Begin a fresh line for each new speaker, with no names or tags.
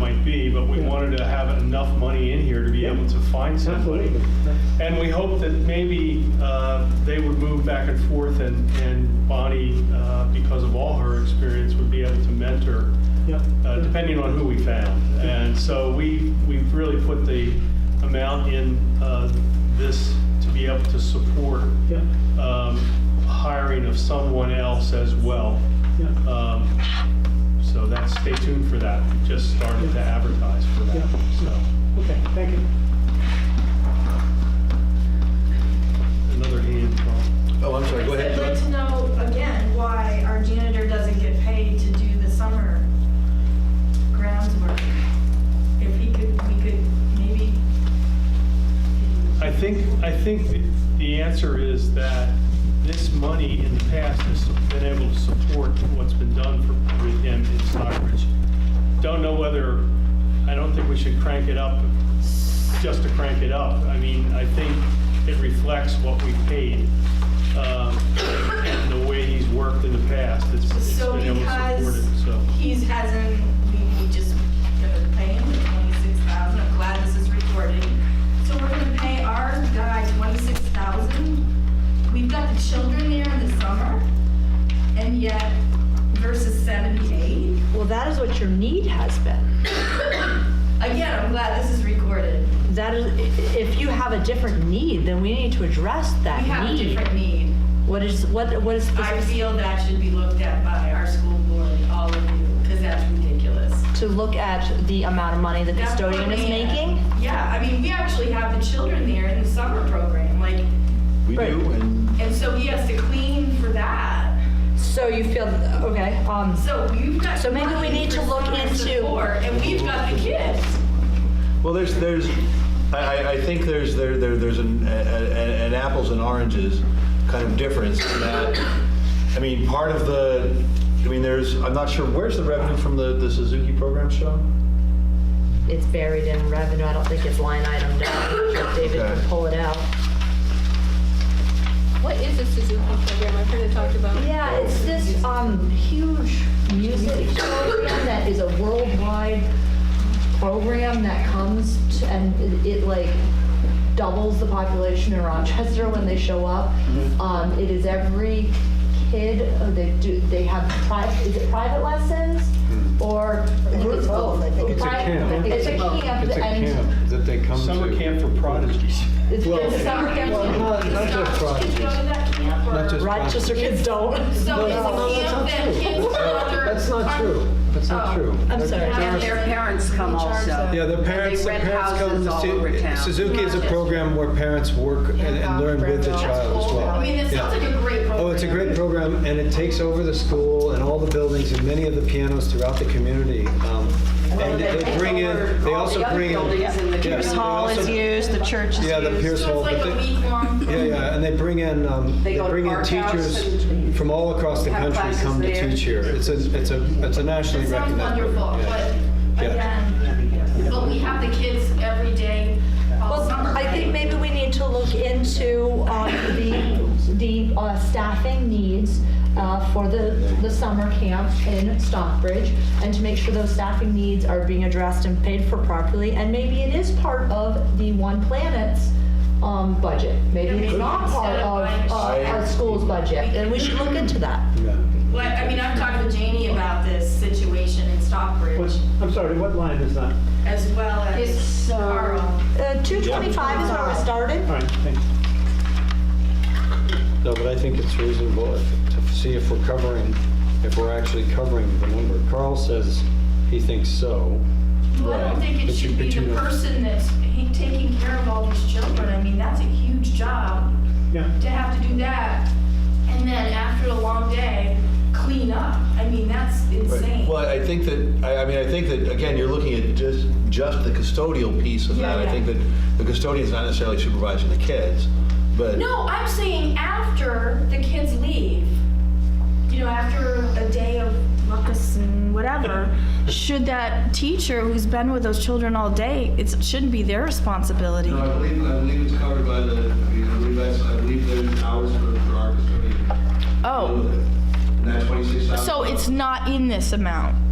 might be, but we wanted to have enough money in here to be able to find somebody.
Absolutely.
And we hope that maybe uh, they would move back and forth and and Bonnie, uh, because of all her experience, would be able to mentor,
Yeah.
uh, depending on who we found. And so we, we've really put the amount in uh, this to be able to support
Yeah,
um, hiring of someone else as well.
yeah,
Um, So that's, stay tuned for that. We just started to advertise for that,
Yeah.
so.
okay, thank you.
Another hand, Tom.
Oh, I'm sorry, go ahead.
I'd like to know, again, why our janitor doesn't get paid to do the summer grounds work. If he could, we could maybe.
I think, I think the- the answer is that this money in the past has been able to support what's been done for, with him in Stockbridge. Don't know whether, I don't think we should crank it up just to crank it up. I mean, I think it reflects what we paid, um, and the way he's worked in the past. It's it's
So
been able to support
because
it, so.
he's hasn't, we, we just gonna pay him the twenty-six thousand, I'm glad this is recorded. So we're gonna pay our guy twenty-six thousand? We've got the children there in the summer, and yet versus seventy-eight?
Well, that is what your need has been.
Again, I'm glad this is recorded.
That is, i- if you have a different need, then we need to address that
We have a
need.
different need.
What is, what, what is, the-
I feel that should be looked at by our school board, all of you, because that's ridiculous.
to look at the amount of money the
That's
custodian
what
is
we-
making?
Yeah, I mean, we actually have the children there in the summer program, like,
We
Right.
do, and
and so he has to clean for that.
So you feel, okay, um,
So you've got.
So maybe we
money
need to
for
look
summer
into-
support, And we've got the kids.
Well, there's, there's, I, I- I think there's, there, there- there's an, a- a- an apples and oranges kind of difference in that, I mean, part of the, I mean, there's, I'm not sure, where's the revenue from the, the Suzuki program show?
it's buried in revenue, I don't think it's line item down, David can
Okay.
pull it out.
What is a Suzuki program? I've heard it talked about.
Yeah, it's this, um, huge music program that is a worldwide program that comes to- and it it, like doubles the population in Rochester when they show up.
Mm-hmm.
Um, it is every kid, uh, they do, they have private, is it private lessons? Or? I think it's both, I think.
It's a camp.
It's a camp
Mm-hmm. It's a
and
camp that they come to.
Summer camp for prodigies.
it's
Well,
it's summer
Well,
camp.
not, not just
Kids go to
prodigies.
that camp or.
Not just-
Rochester kids don't.
So
No,
it's a
no, no, that's
camp
not
that
true.
kids.
That's not true. That's not
Oh,
true.
I'm sorry.
And their parents come also.
Yeah, the
And
parents,
they
the
rent
parents come
houses
to
all over
see,
town.
Suzuki is a program where parents work and and learn with the child as well.
I mean, that sounds
Yeah.
like a great program.
Oh, it's a great program, and it takes over the school and all the buildings and many of the pianos throughout the community. Um, And
they
they
take
bring in,
over
they
all
also
the other
bring in.
buildings in the
Yeah,
Pierce
they
Hall is
also-
used, the church is
Yeah, the
used.
Pierce
So
Hall.
it's like
but
a
they-
week long.
Yeah, yeah, and they bring in, um,
They
they
go to
bring in
Park House
teachers
and
from all across the
have
country
classes
come to
there.
teach here. It's a, it's a, it's a nationally
It sounds
recognized.
wonderful,
program, yeah.
but
Yeah.
again, but we have the kids every day all
Well,
summer.
I think
right?
maybe we need to look into um, the, the uh, staffing needs uh, for the, the summer camp in Stockbridge and to make sure those staffing needs are being addressed and paid for properly. And maybe it is part of the One Planet's um, budget. Maybe it's not part of uh, our school's budget. And we should look into that.
Well, I mean, I've talked with Janie about this situation in Stockbridge
What- I'm sorry, what line is that?
as well as
It's, uh,
Carl.
Uh, 225 is where we started.
All right, thanks.
No, but I think it's reasonable if- to see if we're covering, if we're actually covering the number. Carl says he thinks so.
Well, I don't think it
But you-
should be
but you
the
know-
person that's he- taking care of all these children. I mean, that's a huge job
Yeah,
to have to do that. And then after a long day, clean up. I mean, that's
Right.
insane.
Well, I think that, I, I mean, I think that, again, you're looking at just, just the custodial piece of
Yeah,
that. I
yeah.
think that the custodian's not necessarily supervising the kids, but.
No, I'm saying after the kids leave, you know, after a day of ruckus and whatever, should that teacher who's been with those children all day, it shouldn't be their responsibility.
No, I believe, I believe it's covered by the, I mean, I believe that's, I believe there's hours for, for our custodian.
Oh,
And that twenty-six hours.
so it's not in this amount.